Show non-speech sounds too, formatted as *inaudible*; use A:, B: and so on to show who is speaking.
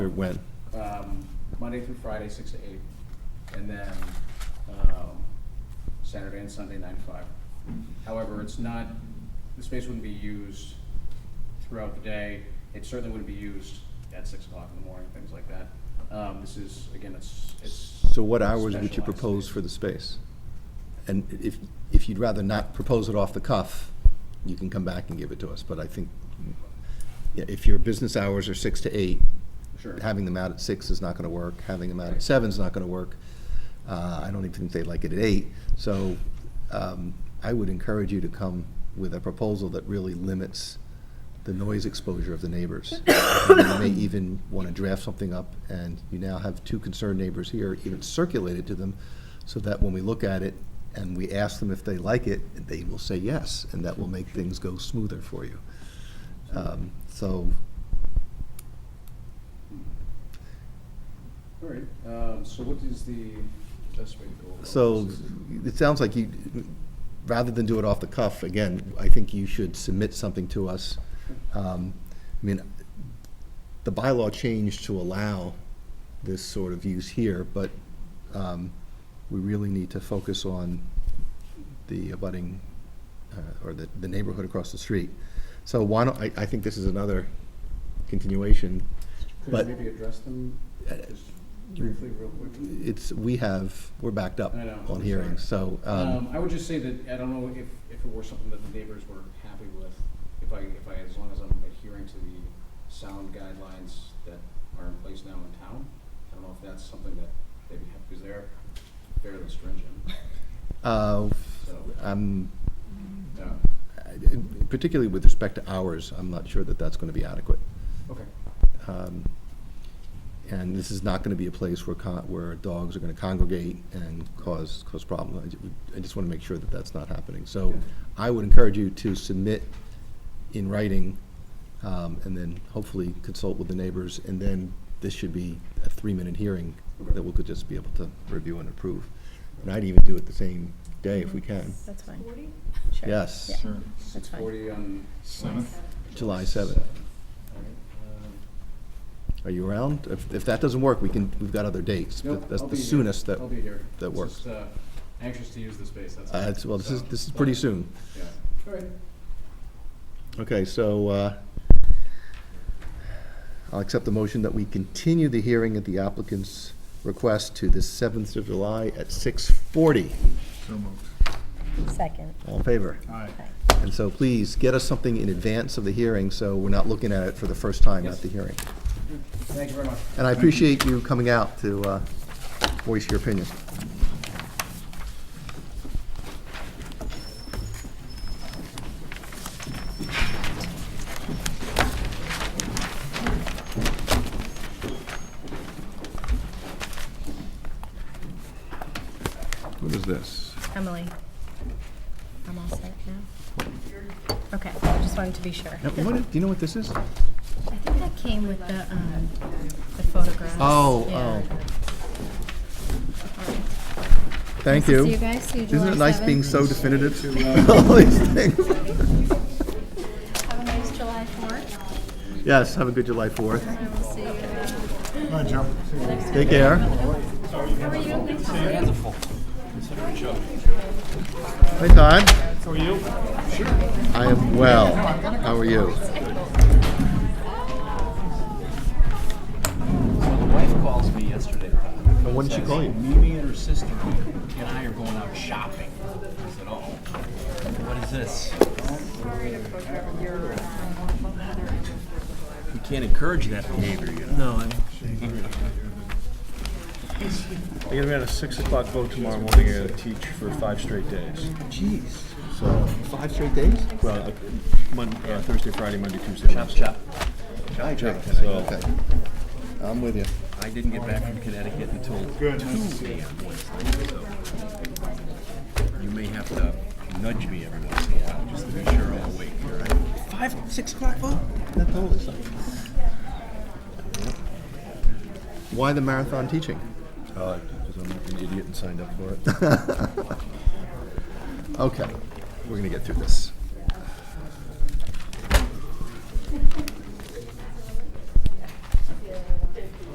A: Or when?
B: um, Monday through Friday, six to eight, and then, um, Saturday and Sunday, nine to five. However, it's not, the space wouldn't be used throughout the day. It certainly wouldn't be used at six o'clock in the morning, things like that. Um, this is, again, it's, it's.
A: So what hours would you
B: specialized
A: propose
B: space.
A: for the space? And if, if you'd rather not propose it off the cuff, you can come back and give it to us, but I think, yeah, if your business hours are six to eight,
B: Sure.
A: having them out at six is not gonna work, having them out at seven's not gonna work. Uh, I don't even think they like it at eight, so, um, I would encourage you to come with a proposal that really limits the noise exposure of the neighbors. And You may even want to draft something up, and you now have two concerned neighbors here, even circulate it to them, so that when we look at it and we ask them if they like it, they will say yes, and that will make things go smoother for you. Um, So,
B: All right, um, so what is the best way to go? about
A: so
B: this?
A: it sounds like you, rather than do it off the cuff, again, I think you should submit something to us. Um, I mean, the bylaw changed to allow this sort of use here, but um, we really need to focus on the abutting, uh, or the the neighborhood across the street. So why don't, I, I think this is another continuation.
B: Could
A: but-
B: you maybe address them
A: Uh,
B: just briefly, real quick?
A: It's, we have, we're backed up
B: I know, I'm
A: on hearings, so.
B: Um, I would just say that, I don't know if, if it were something that the neighbors were happy with, if I, if I, as long as I'm adhering to the sound guidelines that are in place now in town, I don't know if that's something that they'd be happy, because they're fairly stringent,
C: *laughs*
A: Uh,
B: so,
A: I'm,
B: yeah,
A: um, particularly with respect to hours, I'm not sure that that's going to be adequate.
B: okay.
A: Um, And this is not going to be a place where, con- where dogs are going to congregate and cause, cause problems. I ju- I just want to make sure that that's not happening. So
B: Yeah.
A: I would encourage you to submit in writing, um, and then hopefully consult with the neighbors, and then this should be a three-minute hearing that we could just be able to review and approve. And I'd even do it the same day if we can.
C: That's fine.
D: Forty?
C: Sure.
A: Yes.
C: Yeah,
E: Sure.
C: That's
B: Six
C: fine.
B: forty on.
E: Seventh?
A: July 7th.
B: All right, um,
A: Are you around? If, if that doesn't work, we can, we've got other dates,
B: Nope,
A: but that's
B: I'll
A: the
B: be here.
A: soonest that,
B: I'll be here.
A: that
B: It's
A: works.
B: just, uh, Anxious to use the space, that's.
A: uh,
B: all.
A: it's- well, this is,
B: So, uh,
A: this is pretty
B: but,
A: soon.
B: Yeah, all right.
A: Okay, so, uh, I'll accept the motion that we continue the hearing at the applicant's request to the 7th of July at 6:40.
E: So moved.
C: Second.
A: All in favor?
E: Aye.
A: And so please, get us something in advance of the hearing, so we're not looking at it for the first time at
B: Yes.
A: the hearing.
B: Thank you very much.
A: And I appreciate you coming out to uh, voice your opinion.
E: What is this?
C: Emily, I'm all set now? Okay, just wanted to be sure.
A: Now, what, do you know what this is?
C: I think that came with the, um, the photographs.
A: Oh,
C: Yeah.
A: oh.
C: All right.
A: Thank
C: Nice to
A: you.
C: See you guys, see you July
A: Isn't it nice
C: 7th.
A: being so definitive *laughs* to all these things?
C: Have a nice July fourth,
A: Yes, have a good July 4th.
C: and we'll see you uh,
E: Hi, Joe.
A: Take care. Hey, Todd. How are you? I am well. How are you?
F: So the wife calls me yesterday.
A: And when did she call you?
F: Mimi and her sister and I are going out shopping. I said, oh, what is this? You can't encourage that behavior, you know? No, I'm.
G: I gotta be on a six o'clock vote tomorrow morning. I gotta teach for five straight days.
F: Jeez.
G: So,
A: Five straight days?
G: well, uh, Mon- uh, Thursday, Friday, Monday, Tuesday,
F: Chop,
G: Wednesday.
F: chop. Chop, chop.
G: So,
A: Okay. I'm with you.
F: I didn't get back from Connecticut until two AM Wednesday, so. You may have to nudge me every once in a while, just to be sure I'm awake. all right? Five, six o'clock vote?
A: That totally sucks. Why the marathon teaching?
G: uh, because I'm an
A: *laughs*
G: idiot and signed up for it.
A: Okay, we're gonna get through this.